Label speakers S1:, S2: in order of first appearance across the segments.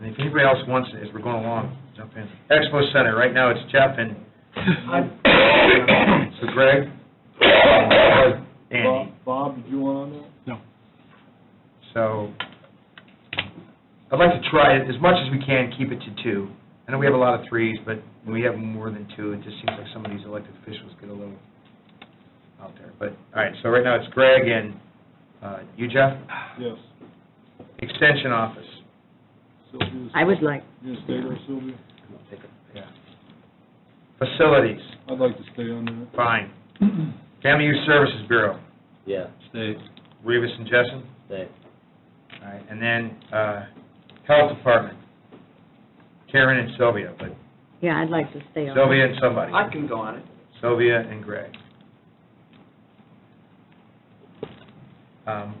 S1: And if anybody else wants, as we're going along, jump in. Expo Center, right now it's Jeff and, so Greg, Andy.
S2: Bob- Bob, did you want on that?
S1: So I'd like to try, as much as we can, keep it to two. I know we have a lot of threes, but when we have more than two, it just seems like some of these elected officials get a little out there. But, all right, so right now it's Greg and uh, you, Jeff?
S2: Yes.
S1: Extension Office.
S2: Sylvia,
S3: I would like,
S2: You gonna stay there, Sylvia?
S1: Yeah. Facilities,
S2: I'd like to stay on
S1: fine. Family Youth Services Bureau,
S4: Yeah,
S5: Stay.
S1: Rivas and Jessen.
S4: they,
S1: All right, and then uh, Health Department, Karen and Sylvia, but
S3: yeah, I'd like to stay on.
S1: Sylvia and somebody.
S6: I can go on it.
S1: Sylvia and Greg. Um,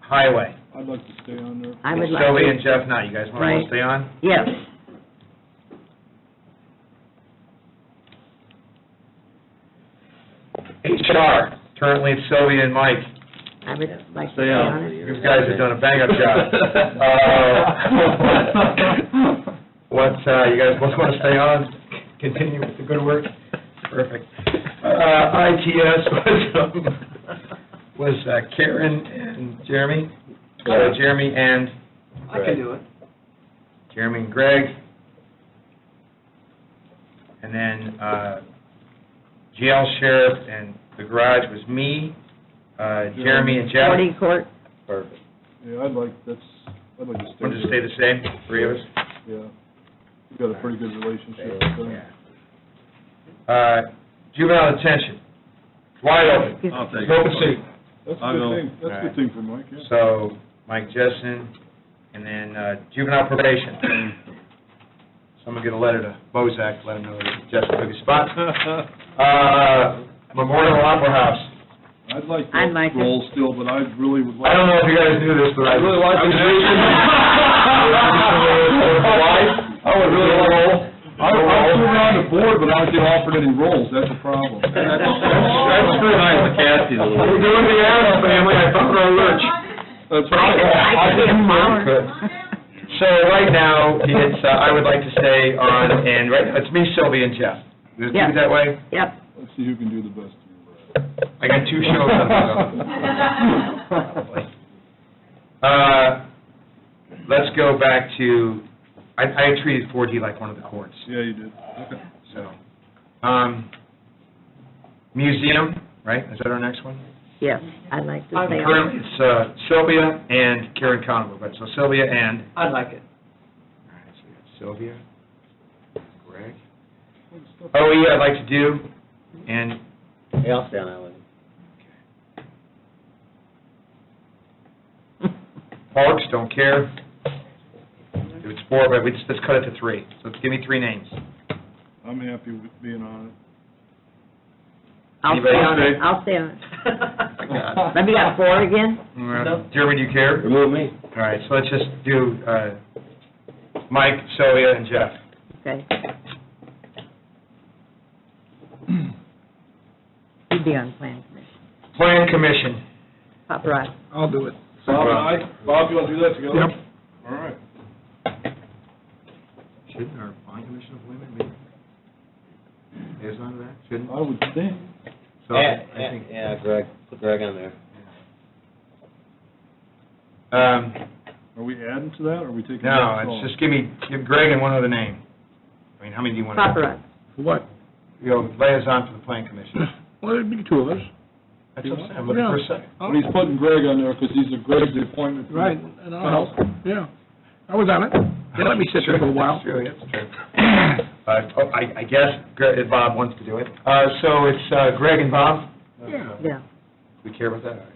S1: Highway.
S2: that. I'd like to stay on there.
S3: I would like
S1: Sylvia and
S3: to.
S1: Jeff Knight, you guys want
S3: Right.
S1: to stay on?
S3: Yes,
S1: HR, currently it's Sylvia and Mike.
S3: I would
S4: Yeah.
S3: like to
S5: Stay
S3: stay
S5: on.
S3: on it.
S1: You guys have done a bang-up job. Uh, What, uh, you guys both want to stay on, continue with the good work? Perfect. Uh, ITS was, um, was uh, Karen and Jeremy? Uh, Jeremy and,
S6: I can do it.
S1: Jeremy and Greg. And then, uh, jail sheriff and the garage was me, uh, Jeremy and Jeff.
S3: County court,
S4: perfect.
S2: Yeah, I'd like, that's, I'd like to stay there.
S1: Want to stay the same, three of us?
S2: Yeah. We've got a pretty good relationship with them.
S1: Yeah. Uh, juvenile detention, wide open,
S5: I'll take it.
S1: open seat.
S2: That's a
S5: I'll
S2: good
S5: go.
S2: thing, that's a
S1: Alright.
S2: good thing for Mike, yeah.
S1: So, Mike Jessen, and then uh, juvenile probation. Someone get a letter to Bozak, let him know that Jessen took his spot. Uh, Memorial Opera House,
S2: I'd like
S3: I'd like
S2: that
S3: to-
S2: role still, but I really would
S1: I
S2: like.
S1: don't know if you guys knew this, but I really like this reason. I would really like.
S2: I, I was around the board, but I don't get offered any roles, that's a problem.
S5: That's pretty nice of Kathy to
S1: We're
S5: leave.
S1: doing the Adams family, I found our lurch.
S2: That's
S1: I
S2: right.
S1: didn't mind, but- So right now, it's, uh, I would like to stay on, and right, now it's me, Sylvia, and Jeff. Is it
S3: Yeah.
S1: that way?
S3: yep,
S2: Let's see who can do the best.
S1: I got two shows on the go. Uh, let's go back to, I, I treated 4D like one of the courts,
S2: Yeah, you did. Okay.
S1: so. Um, museum, right, is that our next one?
S3: yes, I'd like to stay on.
S1: Currently, it's uh, Sylvia and Karen Conover, but so Sylvia and, all
S6: I'd like it.
S1: right, so we got Sylvia, Greg.
S2: Good stuff.
S1: OE Oh, I'd like to do, and
S4: Hey, I'll stay on that one.
S1: Parks, don't care. If it's four, but we just, let's cut it to three. So give me three names.
S2: I'm happy with being on it.
S3: I'll
S1: Anybody
S3: stay on
S1: else?
S3: it, I'll stay on it.
S1: God.
S3: Let me got four again?
S1: Uh, Jeremy, do you care?
S4: Remove me.
S1: All right, so let's just do uh, Mike, Sylvia, and Jeff.
S3: Okay. You'd be on plan commission.
S1: Plan Commission.
S3: Paparazzi.
S5: I'll do it.
S2: Bob and I, Bob, you want to do that together? Yep. All right.
S1: Shouldn't our Plan Commission of women be liaison to that? Shouldn't?
S2: I would think.
S1: So
S4: Yeah,
S1: I
S4: yeah,
S1: think,
S4: yeah, Greg, put Greg on there.
S1: um,
S2: Are we adding to that, or are we taking?
S1: no,
S2: that off?
S1: it's just give me, give Greg and one other name. I mean, how many do you want?
S3: Paparazzi.
S7: What?
S1: You know, liaison to the Plan Commission.
S7: Well, it'd be two of us.
S1: That's what I'm saying, I'm looking for a second.
S2: But he's putting Greg on there, because he's a Greg's appointment. for-
S7: Right, and I'll help, yeah. I was on it. They let me sit there for a while.
S1: Sure, that's true. Uh, oh, I, I guess Gre- if Bob wants to do it. Uh, so it's uh, Greg and Bob?
S7: Yeah.
S3: yeah.
S1: We care about that? All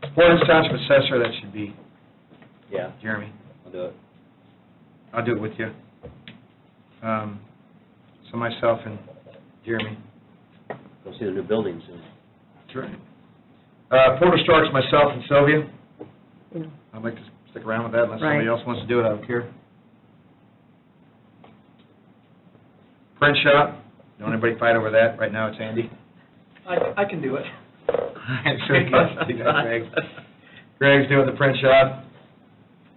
S1: right. Portage Township Assessor, that should be
S4: Yeah,
S1: Jeremy.
S4: I'll do it.
S1: I'll do it with you. Um, so myself and Jeremy.
S4: Go see the new building soon.
S1: That's right. Uh, Porter Starks, myself and Sylvia.
S3: Yeah.
S1: I'd like to stick around with that unless somebody
S3: Right.
S1: else wants to do it, I don't care. Print Shop, don't anybody fight over that. Right now, it's Andy.
S6: I, I can do it.
S1: Greg. Greg's doing the print shop.